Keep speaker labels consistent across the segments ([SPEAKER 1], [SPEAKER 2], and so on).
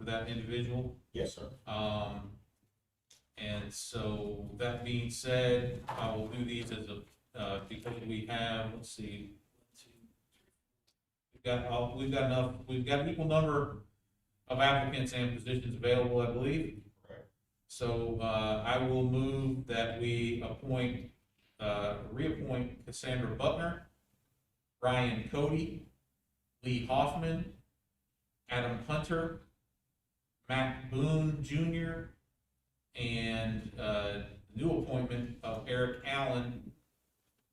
[SPEAKER 1] that individual.
[SPEAKER 2] Yes, sir.
[SPEAKER 1] Um, and so that being said, I will do these as a, uh, because we have, let's see. We've got, all- we've got enough, we've got an equal number of applicants and positions available, I believe.
[SPEAKER 2] Correct.
[SPEAKER 1] So, uh, I will move that we appoint, uh, reappoint Cassandra Butner, Ryan Cody, Lee Hoffman, Adam Hunter, Matt Boone Jr., and uh, new appointment of Eric Allen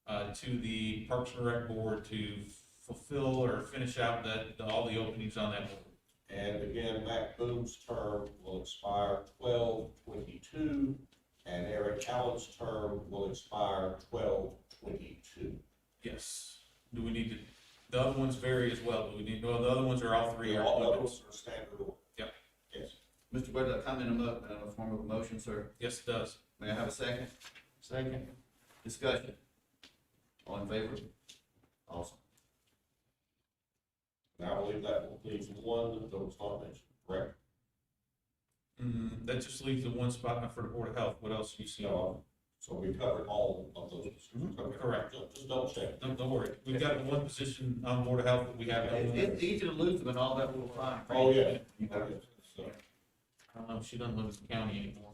[SPEAKER 1] uh, to the Parks and Rec Board to fulfill or finish out that, all the openings on that board.
[SPEAKER 2] And again, Matt Boone's term will expire twelve twenty-two, and Eric Allen's term will expire twelve twenty-two.
[SPEAKER 1] Yes. Do we need to, the other ones vary as well, do we need, well, the other ones are all three are
[SPEAKER 2] All others
[SPEAKER 1] appointments.
[SPEAKER 2] are standard order.
[SPEAKER 1] Yep.
[SPEAKER 2] Yes.
[SPEAKER 3] Mr. Whitlock, I'm in a mo, in a form of a motion, sir.
[SPEAKER 1] Yes, it does.
[SPEAKER 3] May I have a second?
[SPEAKER 1] Second.
[SPEAKER 3] Discussion. All in favor? Awesome.
[SPEAKER 2] And I believe that will leave one that was not mentioned, correct?
[SPEAKER 1] Mm, that just leaves the one spot for the Board of Health, what else do you see? No,
[SPEAKER 2] No. Uh, So we covered all of those. Okay.
[SPEAKER 1] Mm-hmm. Correct.
[SPEAKER 2] Just- Just double check.
[SPEAKER 1] don't worry, we've got the one position on Board of Health that we have. no
[SPEAKER 3] It-
[SPEAKER 1] one
[SPEAKER 3] It's easy to lose them and all that little fine. print.
[SPEAKER 2] Oh, yeah.
[SPEAKER 3] You got
[SPEAKER 2] Okay,
[SPEAKER 3] it.
[SPEAKER 2] so,
[SPEAKER 1] I don't know, she doesn't live in the county anymore.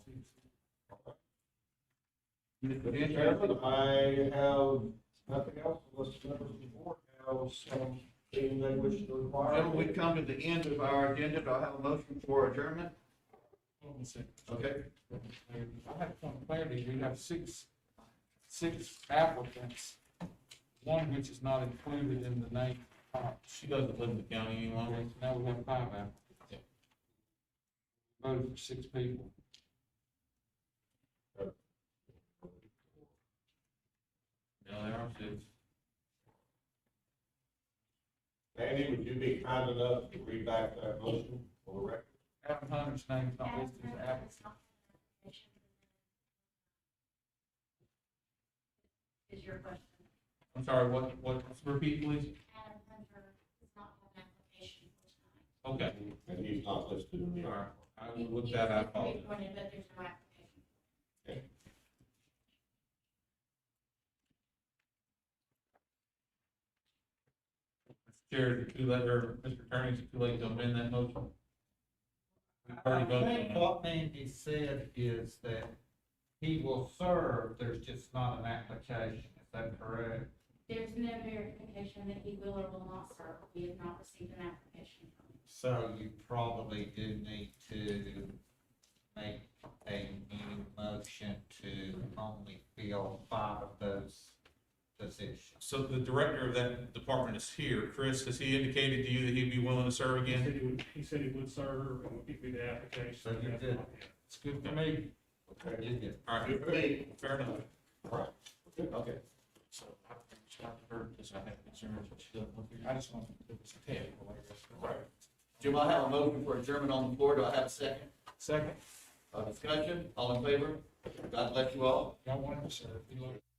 [SPEAKER 3] Mr.
[SPEAKER 4] Mr.
[SPEAKER 3] Henry,
[SPEAKER 4] Chairman, I have nothing else unless the members of the board have something they wish to inquire.
[SPEAKER 3] Gentlemen, we've come to the end of our agenda. Do I have a motion for adjournment? Okay,
[SPEAKER 4] I have some clarity, we have six, six applicants, one which is not included in the name.
[SPEAKER 1] She doesn't live in the county any longer.
[SPEAKER 4] Now we have five applicants. Voted for six people.
[SPEAKER 1] No, there are two.
[SPEAKER 2] Randy, would you be kind enough to read back that motion for the record?
[SPEAKER 4] Adam Hunter's name is not listed as applicant.
[SPEAKER 5] Is your question,
[SPEAKER 1] I'm sorry, what, what, repeat please?
[SPEAKER 5] Adam Hunter does not have an application for tonight.
[SPEAKER 1] Okay,
[SPEAKER 2] And he's not listed in the.
[SPEAKER 1] all right, I will look that up.
[SPEAKER 5] He was appointed, but there's no application.
[SPEAKER 1] Chair, is it too late, or Mr. Attorney, is it too late to amend that motion? We've
[SPEAKER 6] I
[SPEAKER 1] already voted
[SPEAKER 6] think
[SPEAKER 1] on it.
[SPEAKER 6] what Mandy said is that he will serve, there's just not an application, is that correct?
[SPEAKER 5] There's no verification that he will or will not serve. We have not received an application from him.
[SPEAKER 6] So you probably do need to make a new motion to only fill five of those positions.
[SPEAKER 1] So the director of that department is here. Chris, has he indicated to you that he'd be willing to serve
[SPEAKER 7] He
[SPEAKER 1] again?
[SPEAKER 7] said he would, he said he would serve and would give me the application.
[SPEAKER 6] So you did. It's good for me.
[SPEAKER 2] Okay.
[SPEAKER 6] You get-
[SPEAKER 1] All right,
[SPEAKER 3] Lee,
[SPEAKER 1] fair enough.
[SPEAKER 3] okay.
[SPEAKER 8] So I reached out to her because I had concerns, but she doesn't look here. I just wanted to pay it. Right.
[SPEAKER 3] Jim, I have a motion for adjournment on the floor. Do I have a second?
[SPEAKER 4] Second,
[SPEAKER 3] Uh, discussion, all in favor? God bless you all.
[SPEAKER 4] y'all want to serve, you look.